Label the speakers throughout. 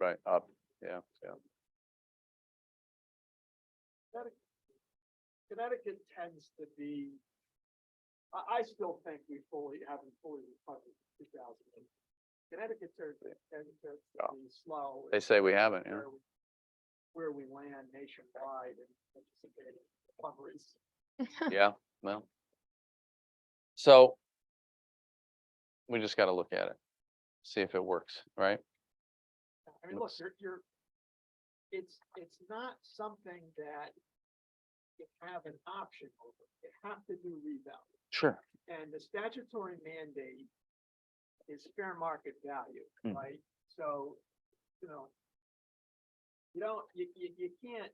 Speaker 1: right, uh, up, yeah, yeah.
Speaker 2: Connecticut tends to be, I, I still think we fully, haven't fully recovered two thousand eight. Connecticut tends to tends to
Speaker 1: Yeah.
Speaker 2: be slow.
Speaker 1: They
Speaker 2: in
Speaker 1: say we haven't, yeah.
Speaker 2: where we- Where we land nationwide and anticipated recoveries.
Speaker 1: Yeah, well. So. We just gotta look at it, see if it works, right?
Speaker 2: I mean, look,
Speaker 1: Looks-
Speaker 2: you're, you're, it's, it's not something that you have an option over. You have to do revalue.
Speaker 1: Sure.
Speaker 2: And the statutory mandate is fair market value,
Speaker 1: Mm.
Speaker 2: right? So, you know, you don't, you, you, you can't,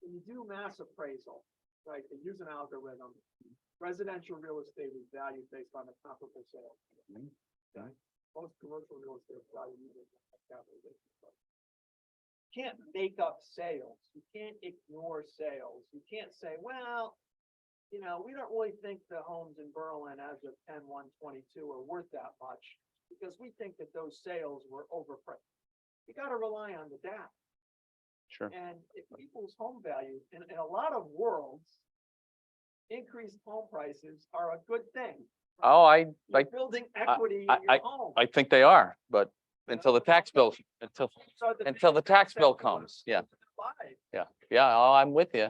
Speaker 2: when you do mass appraisal, right, they use an algorithm. Residential real estate is valued based on the comparable sale.
Speaker 1: Mm.
Speaker 2: Okay? Most commercial real estate is valued using the capitalization price. Can't make up sales. You can't ignore sales. You can't say, well, you know, we don't really think the homes in Berlin as of ten one twenty-two are worth that much because we think that those sales were overpriced. You gotta rely on the data.
Speaker 1: Sure,
Speaker 2: And if people's home values, in, in a lot of worlds, increased home prices are a good thing.
Speaker 1: oh, I,
Speaker 2: You're
Speaker 1: I,
Speaker 2: Building equity
Speaker 1: I-
Speaker 2: in your home.
Speaker 1: I think they are, but until the tax bill, until,
Speaker 2: So the
Speaker 1: until the
Speaker 2: biggest
Speaker 1: tax bill
Speaker 2: sector was-
Speaker 1: comes, yeah.
Speaker 2: was Live.
Speaker 1: yeah, oh, I'm with you.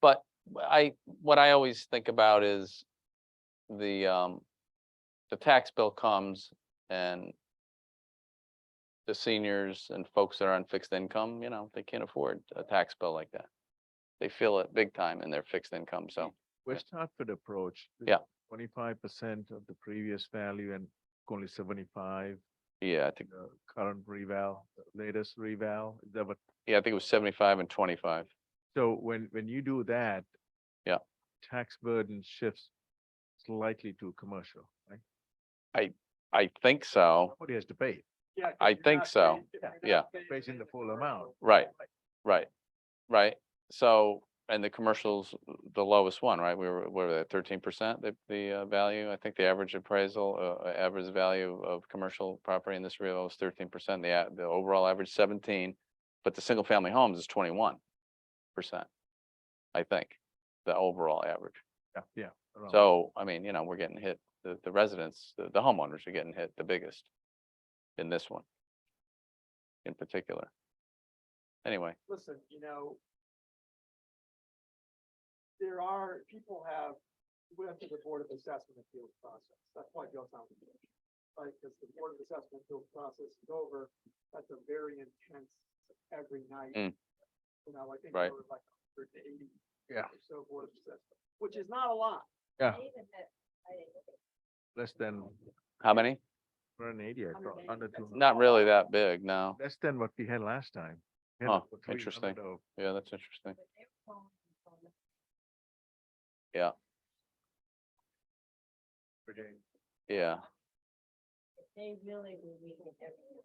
Speaker 1: But I, what I always think about is the, um, the tax bill comes and the seniors and folks that are on fixed income, you know, they can't afford a tax bill like that. They feel it big time in their fixed income, so,
Speaker 3: West Hartford approach.
Speaker 1: Yeah.
Speaker 3: Twenty-five percent of the previous value and only seventy-five,
Speaker 1: yeah, I think,
Speaker 3: the current reval, the latest reval, is that what?
Speaker 1: yeah, I think it was seventy-five and twenty-five.
Speaker 3: So when, when you do that.
Speaker 1: Yeah.
Speaker 3: Tax burden shifts slightly to commercial, right?
Speaker 1: I think so,
Speaker 3: Somebody has to pay. it.
Speaker 2: Yeah, 'cause
Speaker 1: I
Speaker 2: you're
Speaker 1: think
Speaker 2: not
Speaker 1: so.
Speaker 2: paying- if you're not
Speaker 1: Yeah.
Speaker 2: paying
Speaker 3: Raising the full amount.
Speaker 2: commercial,
Speaker 1: right, right, right. So, and the commercials, the lowest one, right, we were, what were they, thirteen percent, the, the uh, value? I think the average appraisal, uh, uh, average value of commercial property in this real is thirteen percent, the, a- the overall average seventeen. But the single-family homes is twenty-one percent, I think, the overall average.
Speaker 3: Yeah, yeah. around.
Speaker 1: So, I mean, you know, we're getting hit, the, the residents, the the homeowners are getting hit the biggest in this one in particular. Anyway,
Speaker 2: listen, you know, there are, people have, went through the Board of Assessment Appeals process. That's why Johnstown was built. Right, because the Board of Assessment Appeals process is over. That's a very intense every night.
Speaker 1: Mm.
Speaker 2: You know, I think
Speaker 1: Right.
Speaker 2: there were like hundred and eighty.
Speaker 3: Yeah.
Speaker 2: or So Board of Assessment, which is not a lot.
Speaker 3: Yeah,
Speaker 4: even that I didn't look at
Speaker 3: less than
Speaker 1: how many?
Speaker 3: hundred and eighty, I thought,
Speaker 2: 180,
Speaker 3: under
Speaker 2: that's
Speaker 3: two,
Speaker 1: Not really that big, no.
Speaker 3: less than what we had last time. We had
Speaker 1: Huh,
Speaker 3: about 300
Speaker 1: interesting.
Speaker 3: of-
Speaker 1: Yeah, that's interesting.
Speaker 4: but they were calling me from the
Speaker 1: Yeah,
Speaker 4: They really were reading everything.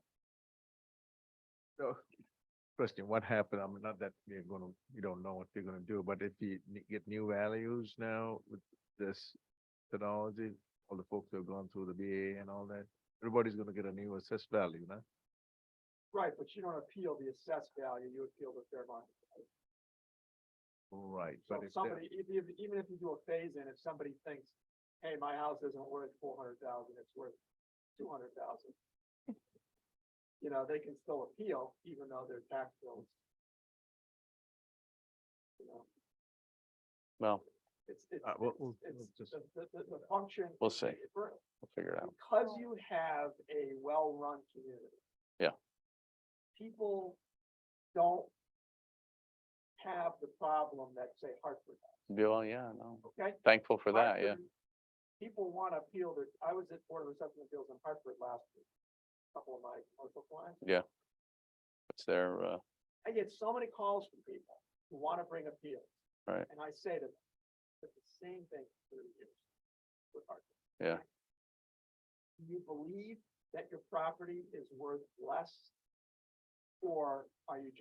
Speaker 3: So, question, what happened? I mean, not that we're gonna, we don't know what we're gonna do, but if we n- get new values now with this technology, all the folks who have gone through the BA and all that, everybody's gonna get a new assessed value, no?
Speaker 2: Right, but you don't appeal the assessed value, you appeal the fair market. value.
Speaker 3: Right,
Speaker 2: So
Speaker 3: but
Speaker 2: if
Speaker 3: if, they're-
Speaker 2: somebody, if, if- even if you do a phase in, if somebody thinks, hey, my house isn't worth four hundred thousand, it's worth two hundred thousand. You know, they can still appeal even though their tax bills. You know,
Speaker 1: well,
Speaker 2: it's, it's,
Speaker 3: Uh, we'll- we'll-
Speaker 2: it's,
Speaker 3: we'll
Speaker 2: it's,
Speaker 3: just-
Speaker 2: the, the- the, the function.
Speaker 1: We'll
Speaker 2: is
Speaker 1: see.
Speaker 2: different
Speaker 1: we'll figure it out.
Speaker 2: Because you have a well-run community.
Speaker 1: Yeah.
Speaker 2: People don't have the problem that say Hartford has,
Speaker 1: Well, yeah, no,
Speaker 2: okay?
Speaker 1: thankful for that, yeah.
Speaker 2: Hartford, People want to appeal their, I was at Board of Assessment Appeals in Hartford last week, couple of my commercial clients.
Speaker 1: It's their, uh,
Speaker 2: I get so many calls from people who want to bring appeals.
Speaker 1: Right.
Speaker 2: And I say to them, it's the same thing for thirty years with Hartford.
Speaker 1: Yeah.
Speaker 2: Do you believe that your property is worth less? Or are you